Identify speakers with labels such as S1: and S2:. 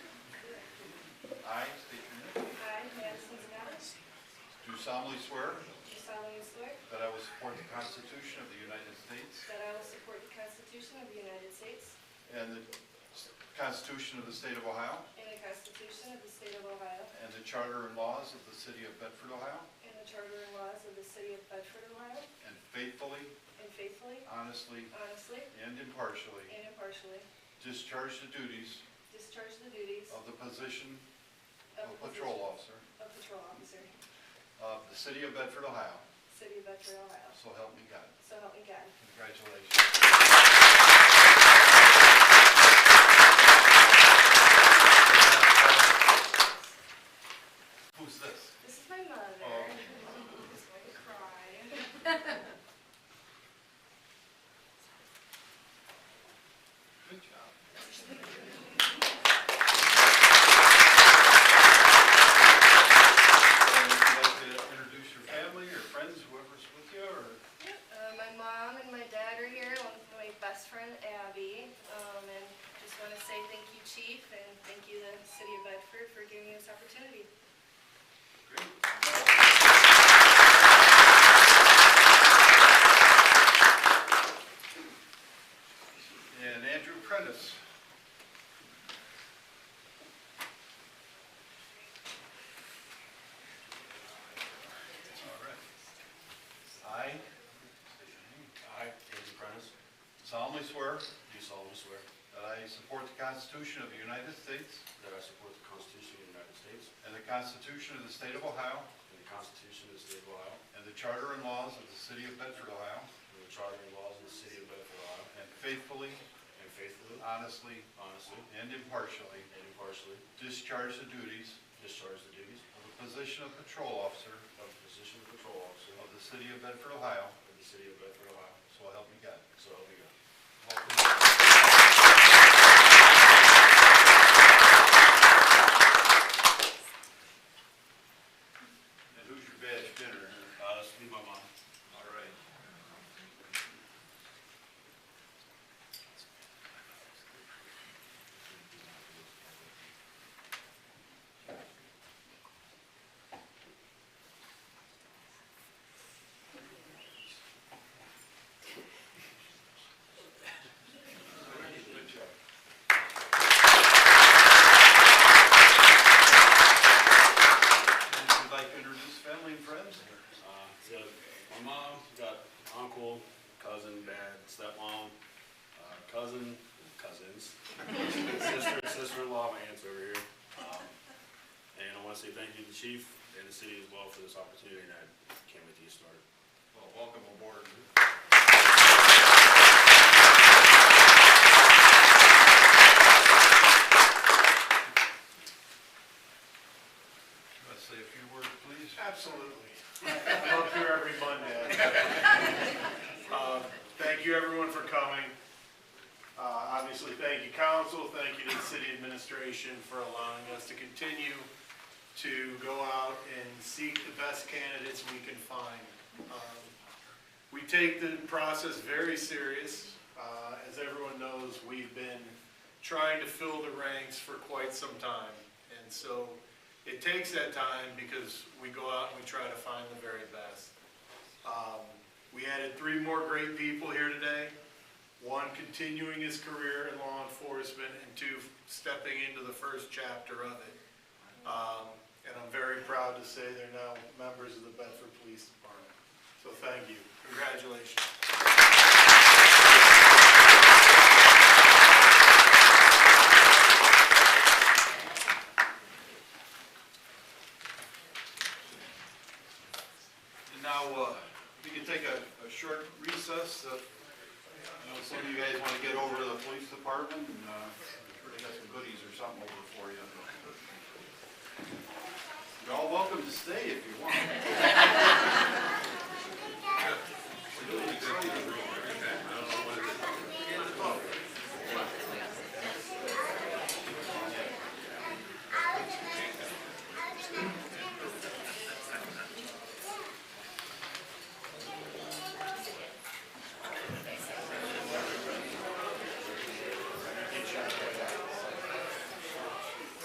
S1: Constitution of the State of Ohio
S2: and the Constitution of the State of Ohio
S1: and the Charter and laws of the City of Bedford, Ohio,
S2: and the Charter and laws of the City of Bedford, Ohio,
S1: and faithfully,
S2: and faithfully,
S1: honestly,
S2: honestly,
S1: and impartially
S2: and impartially
S1: discharge the duties
S2: discharge the duties
S1: of the position
S2: of
S1: of
S2: position
S1: patrol officer
S2: Of patrol officer,
S1: of the City of Bedford, Ohio.
S2: City of Bedford, Ohio.
S1: So help me God.
S2: So help me God.
S1: Congratulations. Who's this?
S2: This is my mother.
S1: Oh.
S2: She's going to cry.
S1: Good job. Would you like to introduce your family, your friends, whoever's with you, or?
S2: Yep. Uh, my mom and my dad are here, along with my best friend Abby. Um, and just want to say thank you, Chief, and thank you, the City of Bedford, for giving me this opportunity.
S1: Great. And Andrew Prentice. All right.
S3: I, I, Andrew Prentice,
S1: Solemnly swear
S3: do solemnly swear
S1: that I support the Constitution of the United States
S3: that I support the Constitution of the United States
S1: and the Constitution of the State of Ohio
S3: and the Constitution of the State of Ohio
S1: and the Charter and laws of the City of Bedford, Ohio,
S3: and the Charter and laws of the City of Bedford, Ohio,
S1: and faithfully,
S3: and faithfully,
S1: honestly,
S3: honestly,
S1: and impartially
S3: and impartially
S1: discharge the duties
S3: discharge the duties
S1: of the position of patrol officer
S3: of the position of patrol officer
S1: of the City of Bedford, Ohio,
S3: of the City of Bedford, Ohio,
S1: so help me God.
S3: so help me God.
S1: And who's your badge bidder?
S3: Uh, this will be my mom.
S1: All right. Good job. And If you'd like to introduce family and friends,
S3: Uh, so my mom, got uncle, cousin, dad, stepmom, uh, cousin, cousins, sister, sister-in-law, my aunt's over here. Um, and I want to say thank you to the chief and the city as well for this opportunity, and I can't wait to get started.
S1: well, welcome aboard. Let's say a few words, please.
S4: Absolutely. I'm up here every Monday. Uh, Thank you, everyone, for coming. Uh, Obviously, thank you, council, thank you to the city administration for allowing us to continue to go out and seek the best candidates we can find. Um, We take the process very serious. Uh, As everyone knows, we've been trying to fill the ranks for quite some time. And so it takes that time because we go out and we try to find the very best. Um, We added three more great people here today. One continuing his career in law enforcement and two stepping into the first chapter of it. Um, And I'm very proud to say they're now members of the Bedford Police Department. So thank you. Congratulations.
S1: And now, uh, we can take a, a short recess. uh, I know some of you guys want to get over to the police department and, uh, I'm sure they got some goodies or something over for uh, you. You're all welcome to stay if you want.